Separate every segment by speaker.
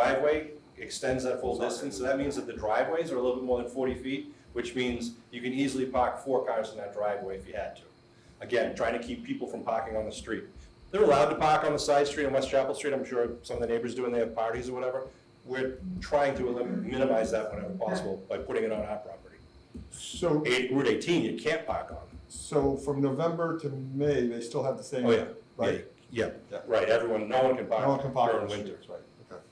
Speaker 1: driveway extends that full distance, so that means that the driveways are a little bit more than forty feet, which means you can easily park four cars in that driveway if you had to. Again, trying to keep people from parking on the street. They're allowed to park on the side street on West Chapel Street, I'm sure some of the neighbors do when they have parties or whatever. We're trying to elim- minimize that whenever possible by putting it on our property.
Speaker 2: So,
Speaker 1: Eight- Route eighteen, you can't park on.
Speaker 2: so from November to May, they still have the same?
Speaker 1: Oh, yeah.
Speaker 2: Right?
Speaker 1: Yeah,
Speaker 2: Yeah.
Speaker 1: right, everyone, no one can
Speaker 2: No one can park
Speaker 1: park
Speaker 2: on
Speaker 1: during
Speaker 2: the
Speaker 1: winter.
Speaker 2: streets, right, okay.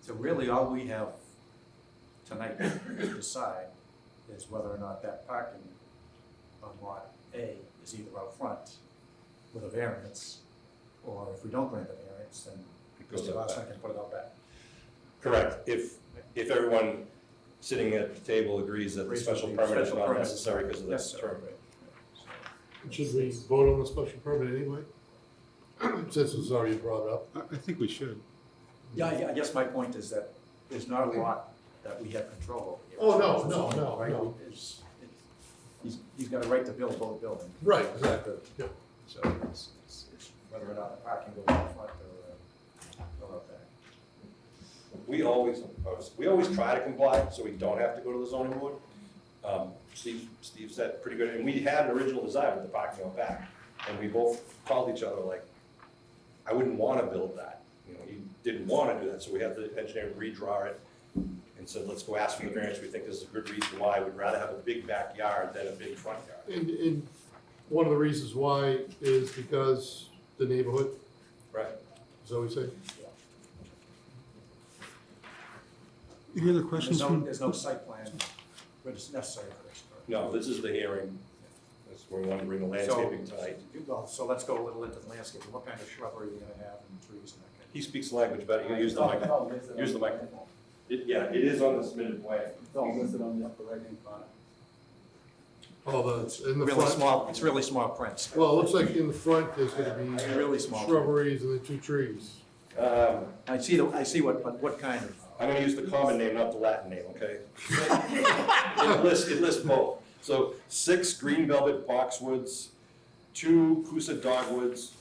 Speaker 3: So really, all we have tonight to decide is whether or not that parking on lot A is either out front with a variance, or if we don't grant the variance, then
Speaker 1: It goes
Speaker 3: Mr.
Speaker 1: out
Speaker 3: Larson
Speaker 1: back.
Speaker 3: can put it out back.
Speaker 1: Correct, if, if everyone sitting at the table agrees that the special permit is not necessary because of this
Speaker 3: Yes,
Speaker 1: term.
Speaker 3: right.
Speaker 4: Should we vote on the special permit anyway? Since it's already brought up.
Speaker 5: I, I think we should.
Speaker 3: Yeah, yeah, I guess my point is that there's not a lot that we have control over. here.
Speaker 4: Oh, no, no, no,
Speaker 3: Right?
Speaker 4: no.
Speaker 3: It's- it's- He's, he's got a right to build both buildings.
Speaker 4: Right, exactly. Yeah.
Speaker 3: So it's, it's, it's whether or not the parking goes out front or, uh, go out back.
Speaker 1: We always, we always try to comply, so we don't have to go to the zoning board. Um, Steve, Steve said pretty good, and we had an original design with the parking lot back, and we both called each other like, I wouldn't wanna build that, you know, he didn't wanna do that, so we had the engineer redraw it and said, let's go ask for the variance, we think this is a good reason why, we'd rather have a big backyard than a big front yard.
Speaker 4: And, and one of the reasons why is because the neighborhood,
Speaker 1: Right.
Speaker 4: is that what we say?
Speaker 5: Any other
Speaker 3: There's
Speaker 5: questions
Speaker 3: no,
Speaker 5: from,
Speaker 3: there's no site plan, but it's necessary for this. correct?
Speaker 1: No, this is the hearing, that's where we want to bring the landscaping
Speaker 3: So-
Speaker 1: tonight.
Speaker 3: you- Well, so let's go a little into the landscape, what kind of shrubbery are you gonna have and trees and that kind
Speaker 1: He speaks the language better, you use the mic.
Speaker 6: mic,
Speaker 1: Use the microphone. It- Yeah, it is on the submitted plan.
Speaker 6: It's all listed on the upper right-hand corner.
Speaker 4: All the, in
Speaker 3: of?
Speaker 4: the
Speaker 3: Really
Speaker 4: front,
Speaker 3: small, it's really small prints.
Speaker 4: well, it looks like in the front, there's gonna
Speaker 3: It's
Speaker 4: be
Speaker 3: Really small.
Speaker 4: shrubberies and the two trees.
Speaker 1: Um,
Speaker 3: I see, the- I see what, but what kind of?
Speaker 1: I'm gonna use the common name, not the Latin name, okay? It lists, it lists both. So six green velvet boxwoods, two Coosa dogwoods,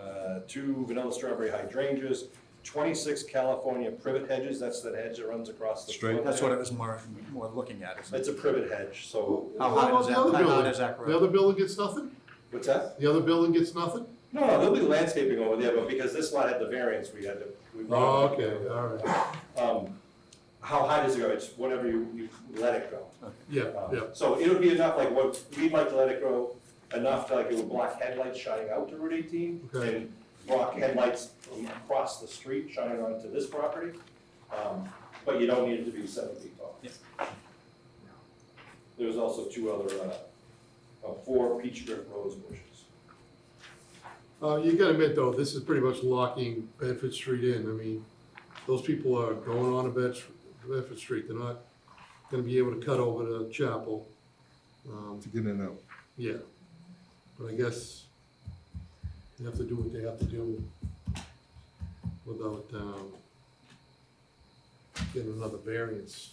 Speaker 1: uh, two vanilla strawberry hydrangeas, twenty-six California privet hedges, that's that hedge that runs across the.
Speaker 5: Straight.
Speaker 3: That's what I was more, more looking at, isn't it?
Speaker 1: It's a privet hedge, so,
Speaker 3: How
Speaker 4: What
Speaker 3: high
Speaker 4: about
Speaker 3: does
Speaker 4: the
Speaker 3: that-
Speaker 4: other
Speaker 3: how high
Speaker 4: building?
Speaker 3: does that grow?
Speaker 4: The other building gets nothing?
Speaker 1: what's that?
Speaker 4: The other building gets nothing?
Speaker 1: No, no, there'll be landscaping over there, but because this lot had the variance, we had to. we-
Speaker 4: Oh, okay, all right,
Speaker 1: Um, How high does it go? It's whatever you, you let it go.
Speaker 4: yeah,
Speaker 1: Um,
Speaker 4: yeah.
Speaker 1: So it would be enough, like what, we'd like to let it grow enough to like it would block headlights shining out to Route eighteen
Speaker 4: Okay.
Speaker 1: and block headlights from across the street shining onto this property. Um, But you don't need it to be seven feet tall.
Speaker 3: Yep.
Speaker 1: There's also two other, uh, uh, four peach drift rose bushes.
Speaker 4: Uh, you gotta admit though, this is pretty much locking Bedford Street in, I mean, those people are going on to Bedford, Bedford Street, they're not gonna be able to cut over to Chapel. Um,
Speaker 5: to get in and out?
Speaker 4: yeah, but I guess they have to do what they have to do without, um, getting another variance.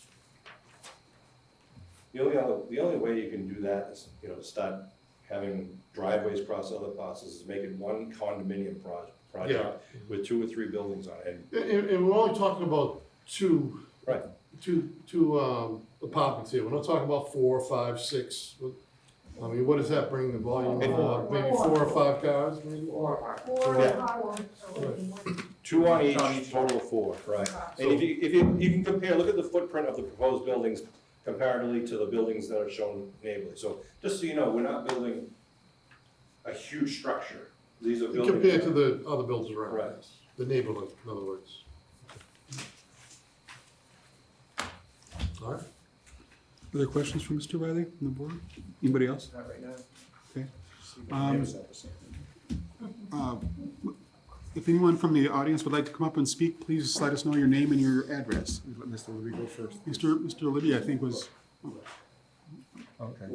Speaker 1: The only other, the only way you can do that is, you know, to start having driveways cross other parcels is make it one condominium proj- project with two or three buildings on it. And
Speaker 4: And, and- and we're only talking about two.
Speaker 1: Right.
Speaker 4: Two, two, um, apartments here, we're not talking about four, five, six, I mean, what does that bring the volume,
Speaker 1: Hey,
Speaker 4: uh, maybe four or five cars, maybe?
Speaker 7: Four
Speaker 1: Yeah.
Speaker 7: hours or one.
Speaker 1: Two on
Speaker 3: On
Speaker 1: each,
Speaker 3: each.
Speaker 1: total of four, right. And if you, if you, you can compare, look at the footprint of the proposed buildings comparatively to the buildings that are shown neighborly. So just so you know, we're not building a huge structure. These are buildings.
Speaker 4: Compared to the other buildings around.
Speaker 1: Right.
Speaker 4: yes. The neighborhood, in other words. All right,
Speaker 5: Other questions for Mr. Riley on the board? Anybody else?
Speaker 3: Not right now.
Speaker 5: Okay.
Speaker 3: See what
Speaker 5: Um,
Speaker 3: neighbors have to say.
Speaker 5: Uh, If anyone from the audience would like to come up and speak, please let us know your name and your address. Let Mr. Libby go first. Mr. Mr. Libby, I think was. Okay.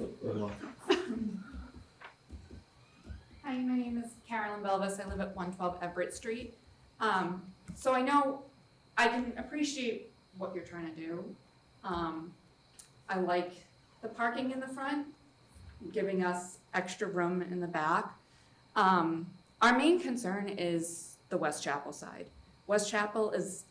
Speaker 7: Hi, my name is Carolyn Belvis. I live at one twelve Everett Street. Um, so I know, I can appreciate what you're trying to do. Um, I like the parking in the front, giving us extra room in the back. Um, our main concern is the West Chapel side. West Chapel is